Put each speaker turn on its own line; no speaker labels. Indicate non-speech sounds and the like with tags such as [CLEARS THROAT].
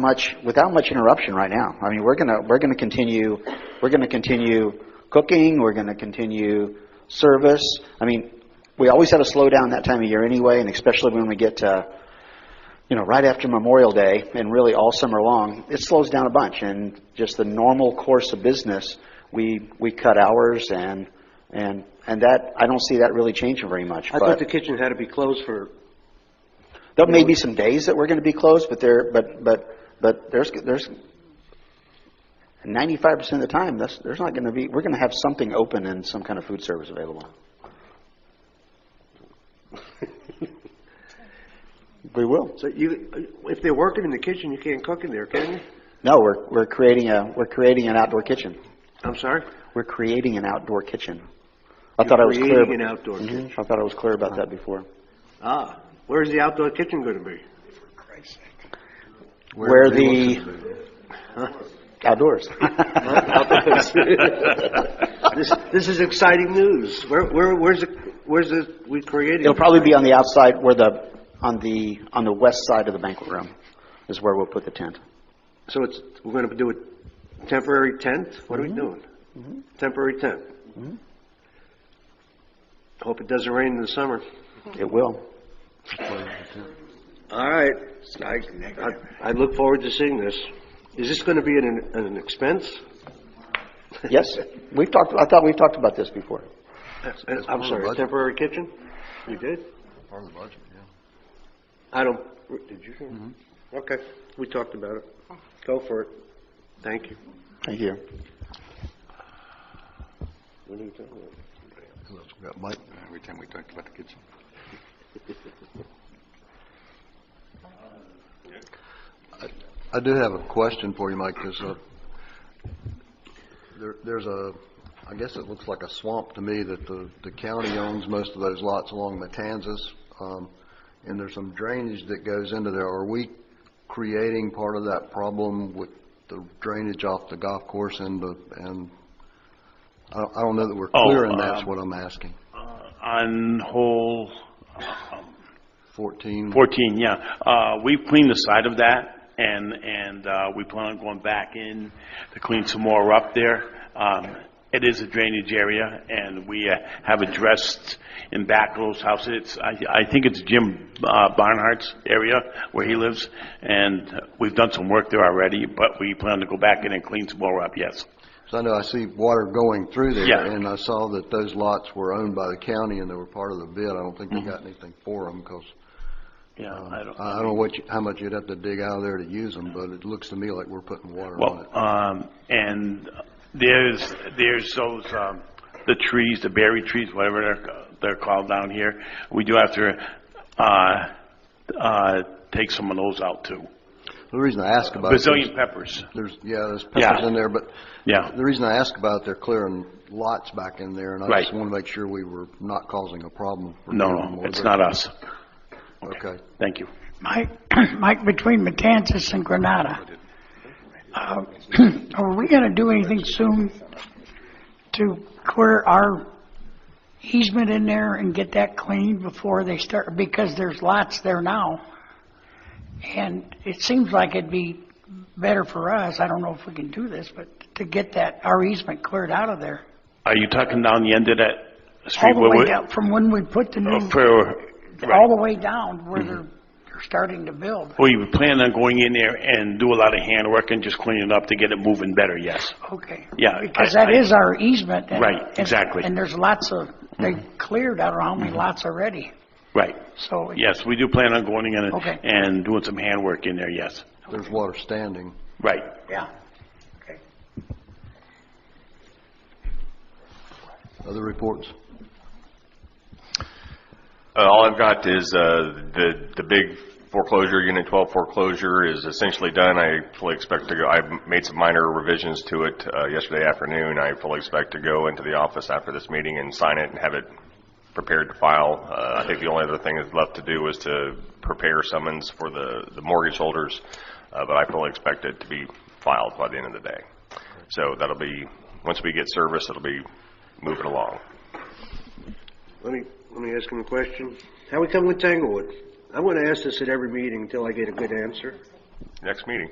much, without much interruption right now. I mean, we're gonna, we're gonna continue, we're gonna continue cooking, we're gonna continue service. I mean, we always have a slowdown that time of year anyway, and especially when we get to, you know, right after Memorial Day and really all summer long, it slows down a bunch. And just the normal course of business, we, we cut hours and, and, and that, I don't see that really changing very much.
I
but-
thought the kitchen had to be closed for,
there may be some days that we're going to be closed, but there, but, but, but there's, there's ninety-five percent of the time, that's, there's not going to be, we're going to have something open and some kind of food service
[LAUGHS]
available. We will.
so you, if they're working in the kitchen, you can't cook in there, can you?
No, we're, we're creating a, we're creating an outdoor kitchen.
I'm sorry?
We're creating an outdoor kitchen. I thought I was clear.
creating an outdoor
Mhm,
kitchen.
I thought I was clear about that before.
Ah, where's the outdoor kitchen gonna be?
Where the,
[LAUGHS]
outdoors. [LAUGHS]
This, this is exciting news. Where, where, where's the, where's the, we created?
It'll probably be on the outside where the, on the, on the west side of the banquet room is where we'll put the tent.
So it's, we're gonna do a temporary tent? What are we doing? Mm-hmm. Temporary tent? Mm-hmm. Hope it doesn't rain in the summer.
It will.
All right. I- I look forward to seeing this. Is this going to be an, an expense?
Yes, we've talked, I thought we've talked about this before.
Uh, I'm sorry, a temporary kitchen? You did?
Part of the budget, yeah. Mm-hmm.
I don't, did you? hear? Okay, we talked about it. Go for it. Thank you.
Thank you.
What are you talking about?
Who else we got, Mike? Every time we talked about the kitchen. I- I do have a question for you, Mike, because there- there's a, I guess it looks like a swamp to me that the the county owns most of those lots along Matanzas, um, and there's some drainage that goes into there. Are we creating part of that problem with the drainage off the golf course and the, and, I don't- I don't know that we're
Oh,
clear, and that's
um,
what I'm asking.
On hole
Fourteen,
14, yeah. Uh, We've cleaned the side of that, and, and uh, we plan on going back in to clean some more up there. Um, It is a drainage area, and we uh, have addressed in back of those houses. It's- I, I think it's Jim uh, Barnhart's area where he lives, and we've done some work there already, but we plan to go back in and clean some more up, yes.
'Cause I know I see water going through there.
Yeah.
And I saw that those lots were owned by the county and they were part of the bid. I don't think they
Mm-hmm.
got anything for them because
Yeah,
I
I don't.
I don't know what, you- how much you'd have to dig out of there to use them, but it looks to me like we're putting water on
Well,
it.
um, and there's, there's those, um, the trees, the berry trees, whatever they're, they're called down here. We do have to, uh, uh, take some of those out too.
The reason I ask about it,
Brazilian
there's,
peppers.
there's- yeah, there's
Yeah.
peppers in there, but
Yeah.
the reason I ask about it, they're clearing lots back in there and I just
Right.
want to make sure we were not causing a problem. for
No,
them
no,
or
it's
their-
not us.
Okay.
Thank you.
Mike, [CLEARS THROAT] Mike, between Matanzas and Granada, uh, [CLEARS THROAT] are we going to do anything soon to clear our easement in there and get that cleaned before they start? Because there's lots there now, and it seems like it'd be better for us, I don't know if we can do this, but to get that, our easement cleared out of there.
Are you talking down the end of that
All
street?
the
where
way
we-
down, from when we put the new,
uh, For,
all
right. Mm-hmm.
the way down where they're, they're starting to build.
We plan on going in there and do a lot of handwork and just clean it up to get it moving better, yes.
Okay.
Yeah,
Because
I-
that
I-
is our easement. and-
Right,
and-
exactly. Mm-hmm.
And there's lots of, they cleared, I don't know how many lots already,
Right.
so. it-
Yes, we do plan on going in
Okay.
and, and doing some handwork in there, yes.
There's water standing.
Right.
Yeah. Okay.
Other reports?
Uh, All I've got is uh, the, the big foreclosure, Unit 12 foreclosure is essentially done. I fully expect to go, I made some minor revisions to it uh, yesterday afternoon. I fully expect to go into the office after this meeting and sign it and have it prepared to file. Uh, I think the only other thing that's left to do is to prepare summons for the, the mortgage holders, uh, but I fully expect it to be filed by the end of the day. So that'll be, once we get service, it'll be moving along.
Let me, let me ask him a question. How we come with Tanglewood? I'm going to ask this at every meeting until I get a good answer.
Next meeting.